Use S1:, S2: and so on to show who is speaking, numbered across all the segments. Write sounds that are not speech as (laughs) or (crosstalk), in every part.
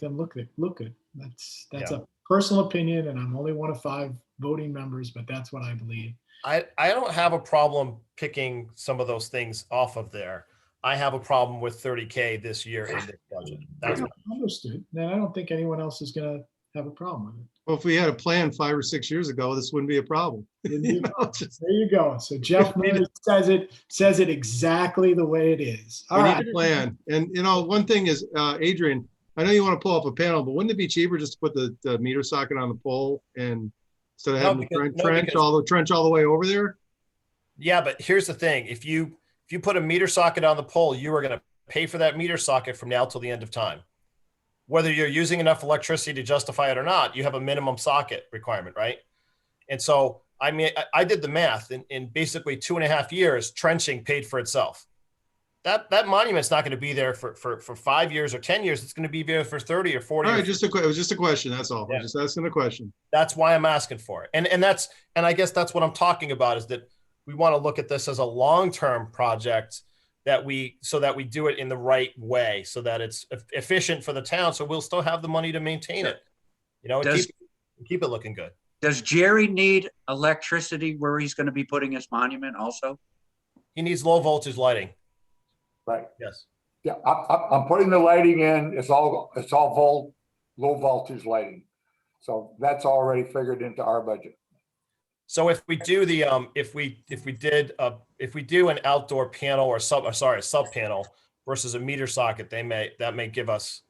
S1: them look good- look good. That's that's
S2: Yeah.
S1: a personal opinion, and I'm only one of five voting members, but that's what I believe.
S2: I, I don't have a problem picking some of those things off of there. I have a problem with thirty K this year in this budget. That's,
S1: Understood. Then I don't think anyone else is gonna have a problem with it.
S3: Well, if we had a plan five or six years ago, this wouldn't be a problem. You know, (laughs) just-
S1: There you go. So Jeff Murray says it, says it exactly the way it is.
S3: We
S1: All
S3: need
S1: right.
S3: a plan. And, you know, one thing is, uh, Adrian, I know you want to pull up a panel, but wouldn't it be cheaper just to put the, the meter socket on the pole and instead of
S2: No,
S3: having to
S2: because-
S3: tren-
S2: no,
S3: trench
S2: because-
S3: all the, trench all the way over there?
S2: yeah, but here's the thing. If you, if you put a meter socket on the pole, you are gonna pay for that meter socket from now till the end of time. Whether you're using enough electricity to justify it or not, you have a minimum socket requirement, right? And so, I mean, I, I did the math in, in basically two and a half years, trenching paid for itself. That, that monument's not gonna be there for, for, for five years or 10 years. It's gonna be there for 30 or
S3: All
S2: 40. or
S3: right, just a, que- it was just a question, that's all.
S2: Yeah.
S3: I'm just asking a question.
S2: that's why I'm asking for it. And and that's and I guess that's what I'm talking about is that we want to look at this as a long-term project that we so that we do it in the right way so that it's e- efficient for the town so we'll still have the money to maintain it. You know, and
S4: Does-
S2: keep, keep it looking good.
S4: Does Jerry need electricity where he's gonna be putting his monument also?
S2: He needs low voltage lighting.
S5: Right,
S2: Yes.
S5: yeah, I'm, I'm, I'm putting the lighting in, it's all, it's all vol, low voltage lighting. So that's already figured into our budget.
S2: So if we do the um if we if we did uh if we do an outdoor panel or sub or sorry, a sub panel versus a meter socket, they may that may give us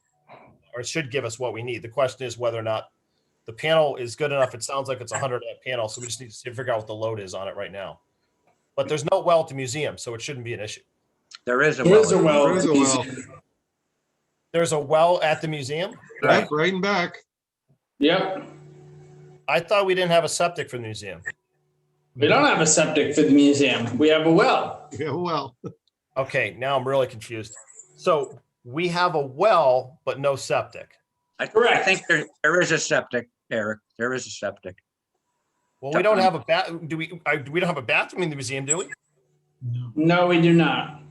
S2: or it should give us what we need. The question is whether or not the panel is good enough. It sounds like it's a hundred amp panel, so we just need to figure out what the load is on it right now. But there's no well at the museum, so it shouldn't be an issue.
S4: There is a
S6: There is a
S4: well.
S6: well.
S3: There is a well.
S2: There's a well at the museum.
S3: Yep, right and back. (laughs)
S6: Yep.
S2: I thought we didn't have a septic for the museum.
S6: We don't have a septic for the museum. We have a well.
S3: Yeah, well,
S2: Okay, now I'm really confused. So we have a well, but no septic.
S4: I I
S6: Correct.
S4: think there, there is a septic, Eric. There is a septic.
S2: Well, we don't have a bat. Do we? I, we don't have a bathroom in the museum, do we?
S1: No.
S6: No, we do not.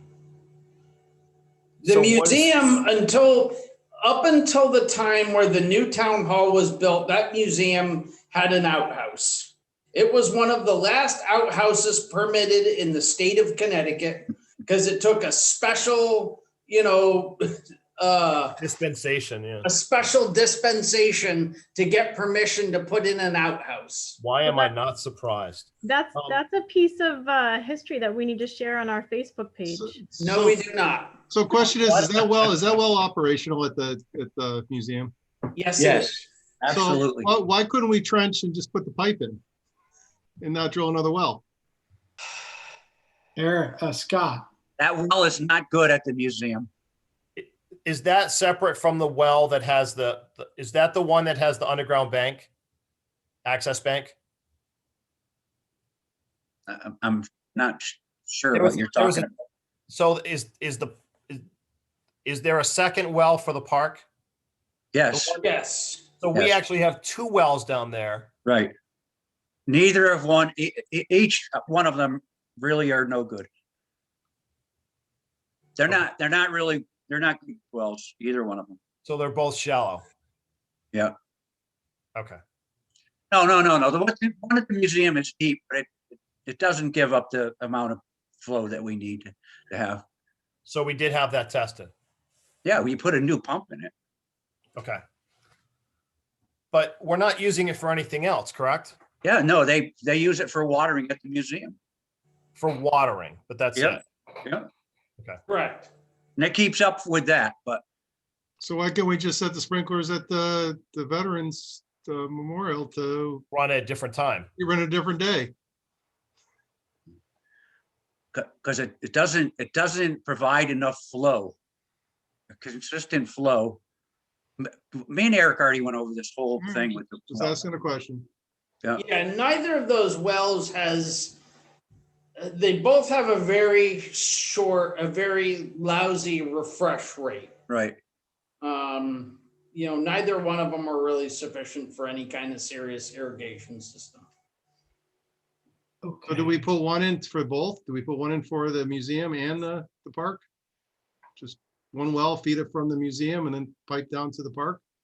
S6: The
S2: So what is-
S6: museum until up until the time where the new town hall was built, that museum had an outhouse. It was one of the last outhouses permitted in the state of Connecticut because it took a special, you know, (laughs) uh,
S2: Dispensation. Yeah.
S6: a special dispensation to get permission to put in an outhouse.
S2: Why am I not surprised?
S7: That's,
S2: Um,
S7: that's a piece of uh, history that we need to share on our Facebook page.
S3: So-
S6: No, we do not.
S3: so question is, is that well, is that well operational at the, at the museum?
S6: Yes. it
S4: Yes,
S6: is.
S3: So,
S4: absolutely.
S3: why- Why couldn't we trench and just put the pipe in? And not drill another well?
S1: Eric, uh, Scott,
S4: That well is not good at the museum.
S2: Is that separate from the well that has the? the- Is that the one that has the underground bank, access bank?
S4: I- I'm- I'm not sh- sure
S2: There
S4: what
S2: was-
S4: you're
S2: there was
S4: talking about.
S2: So is is the is, is there a second well for the park?
S4: Yes,
S6: Yes.
S2: So we
S4: Yes.
S2: actually have two wells down there.
S4: right. Neither of one, e- e- each one of them really are no good. They're not, they're not really, they're not good wells, either one of them.
S2: So they're both shallow.
S4: Yeah.
S2: Okay.
S4: No, no, no, no. The one, the one at the museum is deep, but it, it doesn't give up the amount of flow that we need to- to have.
S2: So we did have that tested.
S4: Yeah, we put a new pump in it.
S2: Okay. But we're not using it for anything else, correct?
S4: Yeah, no, they, they use it for watering at the museum.
S2: For watering, but that's
S4: Yeah.
S2: it.
S6: Correct.
S4: And it keeps up with that, but
S3: So why can't we just set the sprinklers at the, the veterans uh, memorial to
S2: Run at a different time.
S3: run a different day?
S4: because it, it doesn't, it doesn't provide enough flow. A consistent flow. M- Me and Eric already went over this whole
S3: Mm,
S4: thing with the.
S3: Just asking a question.
S6: Yeah, neither of those wells has, uh, they both have a very short, a very lousy refresh rate.
S4: Right,
S6: Um, you know, neither one of them are really sufficient for any kind of serious irrigation system.
S3: So
S1: okay.
S3: do we put one in for both? Do we put one in for the museum and the, the park? Just one well, feed it from the museum and then pipe down to the park?